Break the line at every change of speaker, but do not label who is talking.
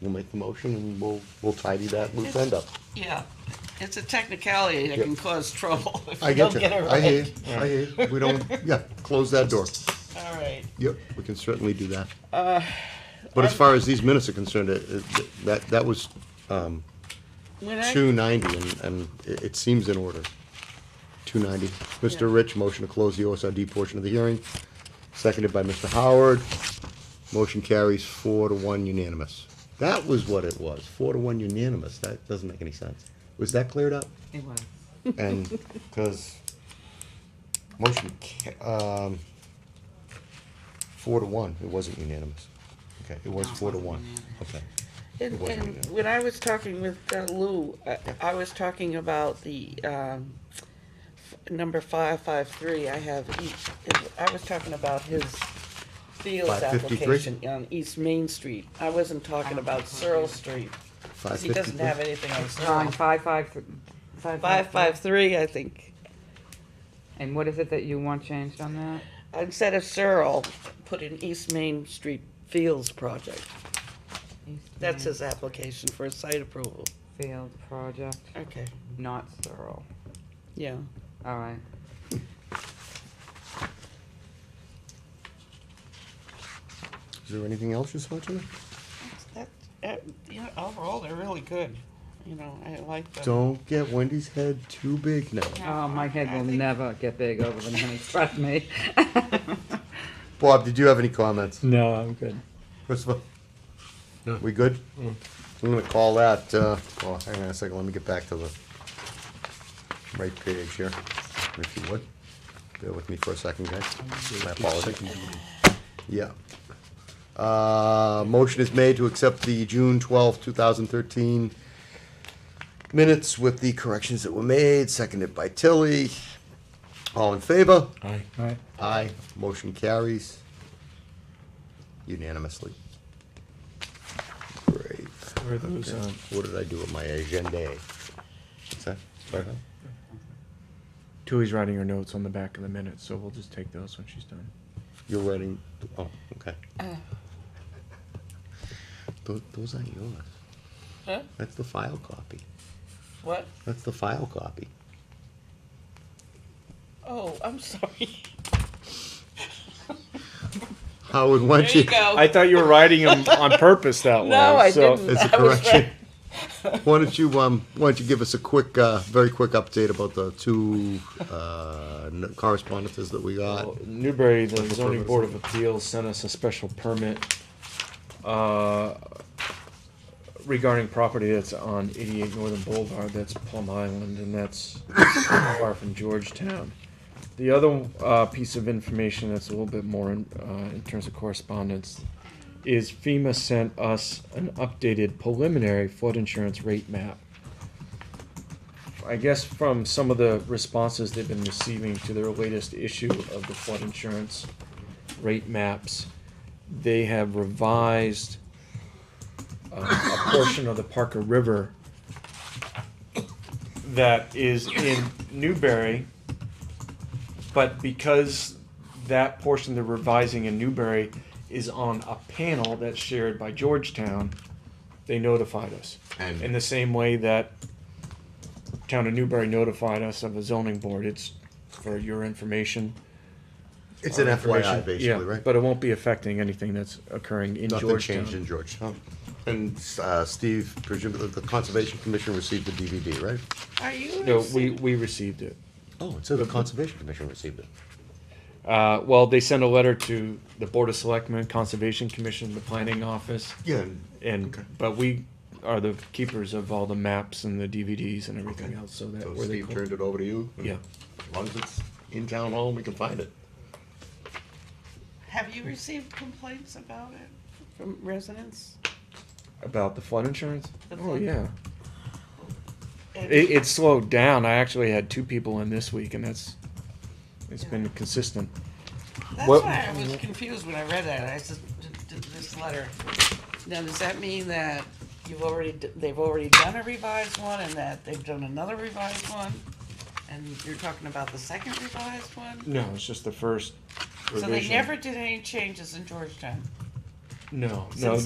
We'll make the motion and we'll, we'll tidy that loose end up.
Yeah, it's a technicality that
Yep.
can cause trouble if
I
you
get
don't
you.
get it right.
I hear, you. I hear. you. We don't, yeah, close that door.
All right,
Yep, we can certainly do that.
Uh,
But as far as these minutes are concerned, it- it- that, that was
when I,
two ninety and, and it, it seems in order. Two ninety.
Yeah.
Mr. Rich, motion to close the OSRD portion of the hearing, seconded by Mr. Howard. Motion carries four to one unanimous. That was what it was, four to one unanimous. That doesn't make any sense. Was that cleared up?
anyway,
And, cause motion, ca- um, four to one, it wasn't unanimous. Okay, it was
No, it
four to
wasn't
one,
unanimous.
okay.
and,
wasn't
and
you.
when I was talking with uh, Lou, I, I was talking about the, um, f- number five, five, three, I have each, I was talking about his Fields
553?
application on East Main Street. I wasn't talking about Searle Street,
Five
cause he doesn't
fifty-three?
have anything on Searle.
Nine, five, five, th- five,
Five, five, three, I think.
And what is it that you want changed on that?
Instead of Searle, put in East Main Street Fields Project.
East
That's
Main
his application for a site approval.
Field project,
Okay.
not Searle.
Yeah.
All right.
Is there anything else you saw tonight?
That, uh, you know, overall, they're really good. You know, I like them.
Don't get Wendy's head too big now.
Oh, my head
I
will
think-
never get big over the money, trust me.
Bob, did you have any comments?
No, I'm good.
Christopher? We good? I'm gonna call that, uh, oh, hang on a second, let me get back to the right page here, if you would. Bear with me for a second, guys. My apologies. Yeah. Uh, motion is made to accept the June twelfth, two thousand thirteen minutes with the corrections that were made, seconded by Tilly. All in favor?
Aye. Aye.
Aye, motion carries unanimously. Great.
Where are those, um,
What did I do with my agenda? What's that? Sorry, huh?
Tui's writing her notes on the back of the minutes, so we'll just take those when she's done.
You're writing, oh, okay.
Uh.
Tho- Those aren't yours.
Huh?
That's the file copy.
What?
That's the file copy.
Oh, I'm sorry.
Howard, why
There
don't
you
you?
go.
I thought you were writing them on purpose that way.
No, I
so-
didn't.
As a
I was
correction. Why don't you, um, why don't you give us a quick, uh, very quick update about the two, uh, n- correspondences that we got?
Well, Newbury, the
Special
zoning
permit.
board of appeals sent us a special permit uh, regarding property that's on eighty-eight Northern Boulevard, that's Plum Island, and that's far from Georgetown. The other uh, piece of information that's a little bit more in, uh, in terms of correspondence is FEMA sent us an updated preliminary flood insurance rate map. I guess from some of the responses they've been receiving to their latest issue of the flood insurance rate maps, they have revised uh, a portion of the Parker River that is in Newberry. But because that portion they're revising in Newberry is on a panel that's shared by Georgetown, they notified us.
And-
In the same way that town of Newberry notified us of a zoning board, it's for your information.
It's an
Information.
FYI, basically,
Yeah,
right?
But it won't be affecting anything that's occurring in
Nothing changed in
Georgetown.
Georgetown. And uh, Steve, presumably the Conservation Commission received the DVD, right?
Are you?
No, we, we received it.
Oh, so the Conservation Commission received it.
Uh, well, they sent a letter to the Board of Selectmen, Conservation Commission, the Planning Office,
Yeah.
and,
Okay.
but we are the keepers of all the maps and the DVDs and everything else, so that.
So
where they
Steve
go-
turned it over to you?
Yeah.
As long as it's in town hall, we can find it.
Have you received complaints about it from residents?
About the flood insurance?
The
Oh,
flood.
yeah.
And-
It, it slowed down. I actually had two people in this week, and that's, it's been consistent.
That's
What-
why I was confused when I read that. I said, "D- d- this letter. Now, does that mean that you've already, d- they've already done a revised one and that they've done another revised one? And you're talking about the second revised one?
No, it's just the first
So they
revision.
never did any changes in Georgetown?
No, no,
Since